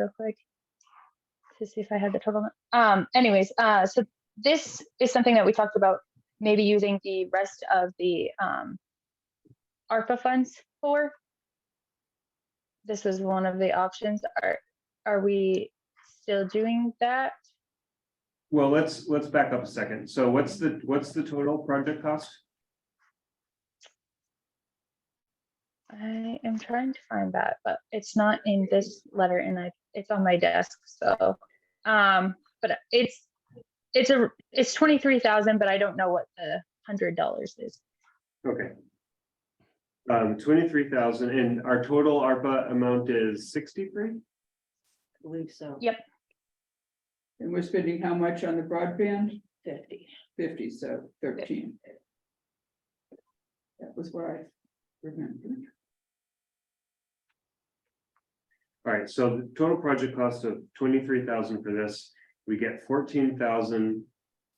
real quick to see if I had the total. Um, anyways, uh, so this is something that we talked about maybe using the rest of the um ARPA funds for. This was one of the options. Are are we still doing that? Well, let's, let's back up a second. So what's the, what's the total project cost? I am trying to find that, but it's not in this letter and I, it's on my desk, so. Um, but it's, it's a, it's twenty-three thousand, but I don't know what the hundred dollars is. Okay. Um, twenty-three thousand and our total ARPA amount is sixty-three? believe so. Yeah. And we're spending how much on the broadband? Fifty. Fifty, so thirteen. That was what I remembered. All right, so the total project cost of twenty-three thousand for this, we get fourteen thousand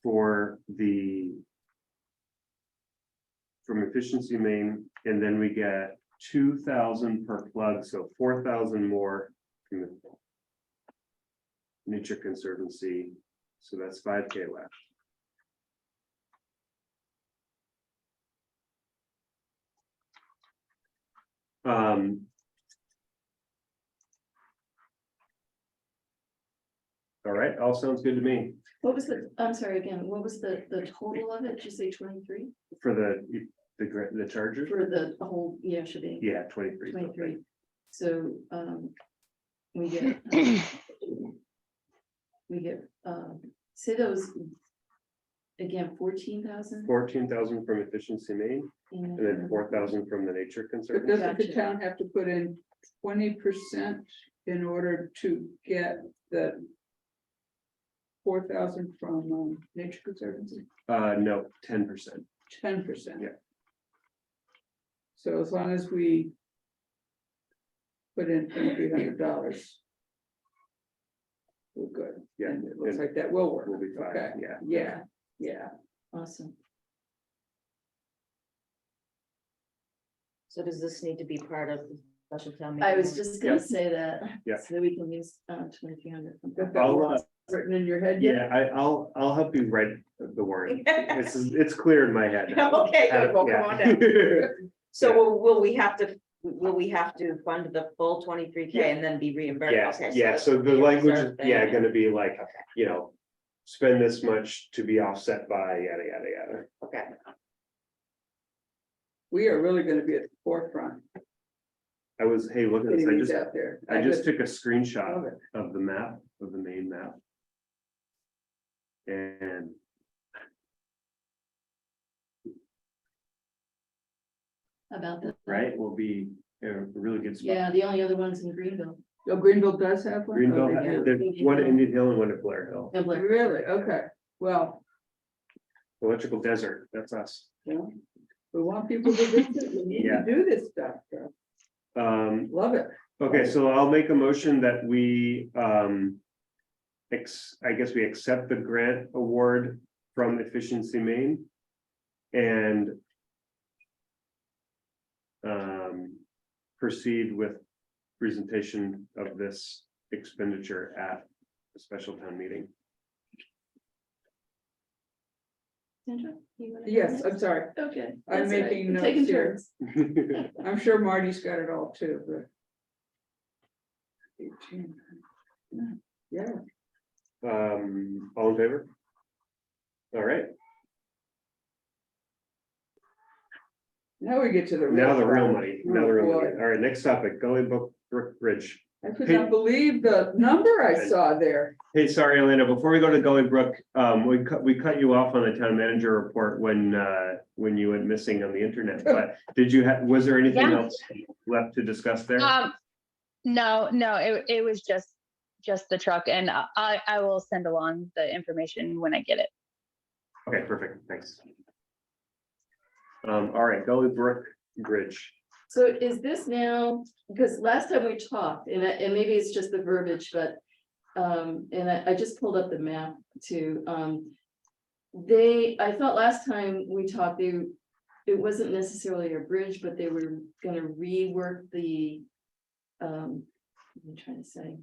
for the. From efficiency main, and then we get two thousand per plug, so four thousand more. from the Nature Conservancy, so that's five K left. Um, all right, all sounds good to me. What was the, I'm sorry, again, what was the, the total of it? Did you say twenty-three? For the, the, gra- the charger? For the the whole, yeah, should be Yeah, twenty-three. something. twenty-three. So, um, we get. We get, um, say those. Again, fourteen thousand. Fourteen thousand from efficiency main, and then four thousand from the nature But conservancy. doesn't Gotcha. the town have to put in twenty percent in order to get the four thousand from um, Nature Conservancy, Uh, no, ten percent. ten percent? Yeah. So as long as we put in three hundred dollars, we're good. Yeah, And it looks and like that will work. we'll be fine, Okay. yeah. Yeah, yeah. Awesome. So does this need to be part of the special town? I was just Yeah. gonna say that. Yeah. So we can use, uh, twenty-three hundred. Got that I'll, uh, Written in your head yet? yeah, I, I'll, I'll help you write the word. This is, it's clear in my head. now. Okay, good, well, come on down. Yeah. So will, will we have to, will we have to fund the full twenty-three K and then be reimbursed? Yes, Okay, yeah, that's so the language, is, reserve thing. yeah, gonna be like, you know, spend this much to be offset by yada, yada, yada. Okay, We are really gonna be at the forefront, I was, hey, look at this, I getting these just, out there. I just took a I screenshot love it. of the map, of the main map. And. About that. Right, will be a really good spot. Yeah, the only other one's in Greenville. Oh, Greenville does have one? Greenville, Oh, they do. there's one at Indian Hill and one at Blair Hill, No, Blair. Really? Okay, well, electrical desert, that's us. we want people to visit, we need Yeah. to do this stuff, girl. Um, love it. Okay, so I'll make a motion that we, um. Ex, I guess we accept the grant award from Efficiency Maine. And. Um, proceed with presentation of this expenditure at a special town meeting. Sandra, you wanna go Yes, I'm next? sorry, Okay. I'm that's all right. making We're notes taking here. turns. I'm sure Marty's got it all too, but. 18. Yeah, Um, all in favor? All right, now we get to the. now the real stuff. money, now the real money. All right, next topic, Gully Brook Brook Bridge. I could not believe the number I saw there. Hey, sorry, Elena, before we go to Gully Brook, um, we cut, we cut you off on the town manager report when, uh, when you went missing on the internet, but did you have, was there anything Yeah. else left to discuss there? Um, no, no, it, it was just, just the truck and I- I, I will send along the information when I get it. Okay, perfect, thanks. Um, all right, Gully Brook Bridge, So is this now, because last time we talked, and I, and maybe it's just the verbiage, but, um, and I, I just pulled up the map to, um. They, I thought last time we talked, they, it wasn't necessarily a bridge, but they were gonna rework the, um, what am I trying to say?